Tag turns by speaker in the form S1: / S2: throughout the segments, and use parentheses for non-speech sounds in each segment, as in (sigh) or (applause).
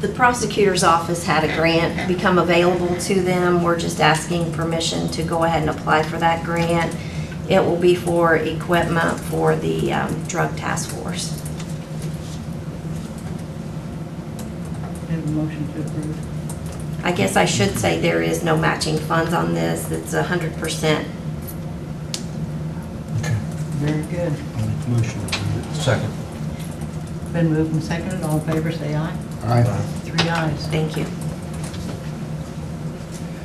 S1: The prosecutor's office had a grant become available to them. We're just asking permission to go ahead and apply for that grant. It will be for equipment for the um, drug task force.
S2: Have a motion to approve.
S1: I guess I should say there is no matching funds on this. It's 100%
S3: Okay,
S2: Very good.
S3: I'll make the motion.
S4: Second.
S2: Been moved and seconded, all in favor, say aye.
S3: Aye.
S2: Three ayes.
S1: Thank you.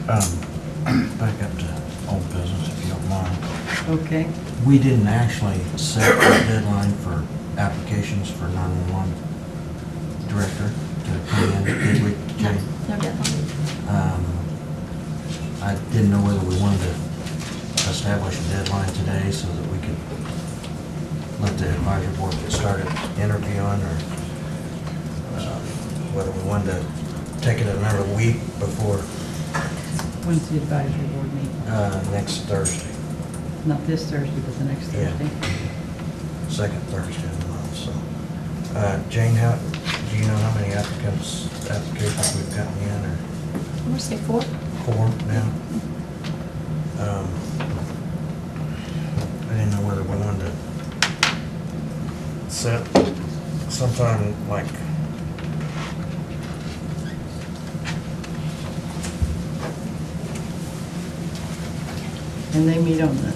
S4: Um, (clears throat) Back up to old business, if you don't mind.
S2: Okay,
S4: We didn't actually set a deadline for applications for 911 director to come in, did we, Jenny?
S1: No deadline?
S4: Um, I didn't know whether we wanted to establish a deadline today so that we could let the advisory board get started interviewing or uh, whether we wanted to take it another week before
S2: when's the advisory board meeting?
S4: uh, next Thursday,
S2: Not this Thursday, but the next
S4: Yeah.
S2: Thursday.
S4: second Thursday of the month, so. Uh, Jane, how, do you know how many applicants, applications we've gotten in or?
S1: I'm going to say four.
S4: four now. Um, I didn't know whether we wanted to set sometime like,
S2: And they meet on the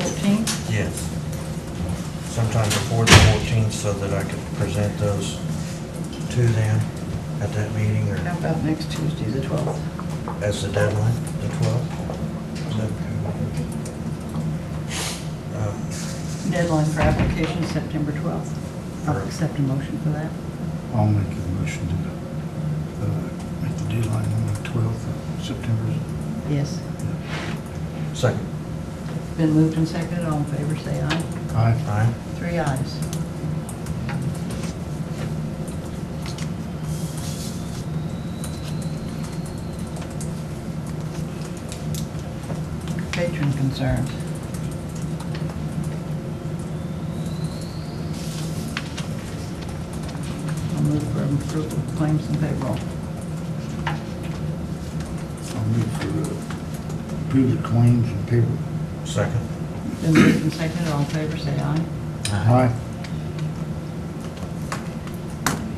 S2: 14th?
S4: yes, sometime before the fourteenth so that I could present those to them at that meeting
S2: How
S4: or
S2: about next Tuesday, the 12th?
S4: as the deadline, the twelfth.
S2: Deadline for application, September 12th. I'll accept a motion for that.
S3: I'll make the motion to, uh, make the deadline on the 12th of September.
S2: Yes.
S4: Uh, Second,
S2: Been moved and seconded, all in favor, say aye.
S3: Aye.
S4: aye?
S2: Three ayes. Patron concerns. I'll move for approval of claims and payroll.
S3: I'll move for, uh, approve the claims and payroll.
S4: Second?
S2: Been moved and seconded, all in favor, say aye.
S3: Aye.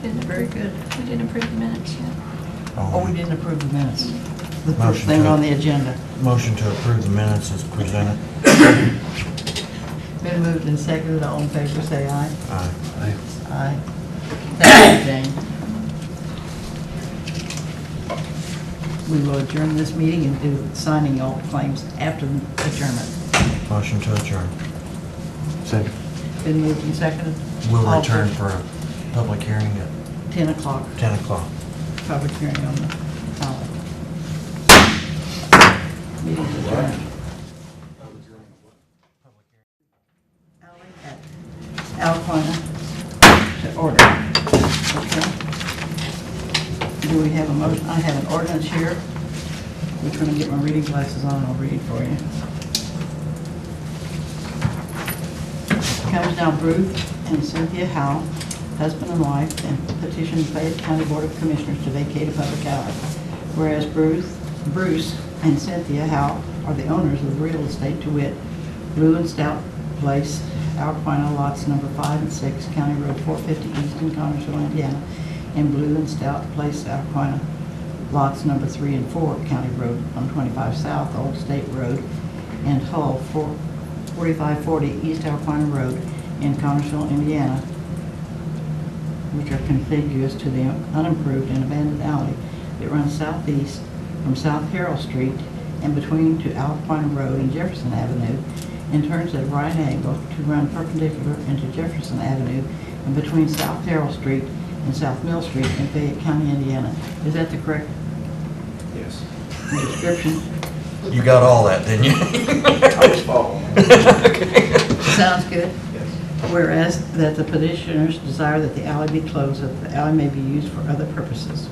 S5: Didn't
S2: Very
S5: approve,
S2: good.
S5: we didn't approve the minutes yet.
S2: Oh, we didn't approve the minutes. The first
S4: Motion
S2: thing
S4: to-
S2: on the agenda.
S4: Motion to approve the minutes as presented.
S2: Been moved and seconded, all in favor, say aye.
S4: Aye.
S3: Aye.
S2: Aye. Thank you, Jane. We will adjourn this meeting and do signing all claims after the adjournment.
S4: Motion to adjourn.
S3: Second.
S2: Been moved and seconded.
S4: We'll
S2: All
S4: return
S2: for
S4: for a public hearing at
S2: 10 o'clock,
S4: 10 o'clock.
S2: public hearing on the ballot. Meeting adjourned. Alley at Alcona to order. Okay. Do we have a motion? I have an ordinance here. We're trying to get my reading glasses on, I'll read for you. Comes now Ruth and Cynthia Howe, husband and wife, and petition the Fayette County Board of Commissioners to vacate a public alley. Whereas Bruce, Bruce and Cynthia Howe are the owners of real estate to wit, Blue and Stout Place, Alpina lots number five and six, County Road four fifty east in Connersville, Indiana, and Blue and Stout Place, Alpina lots number three and four, County Road one twenty-five south, Old State Road, and Hull, four- 4540 East Alpine Road in Connersville, Indiana, which are contiguous to the unimproved and abandoned alley that runs southeast from South Carroll Street and between to Alpine Road and Jefferson Avenue, and turns at a right angle to run perpendicular into Jefferson Avenue and between South Carroll Street and South Mill Street in Fayette County, Indiana. Is that the correct
S6: Yes.
S2: description?
S4: You got all that, didn't you? (laughs)
S6: I was following.
S2: Sounds good.
S6: Yes.
S2: Whereas that the petitioners desire that the alley be closed, that the alley may be used for other purposes.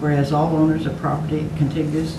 S2: Whereas all owners of property contiguous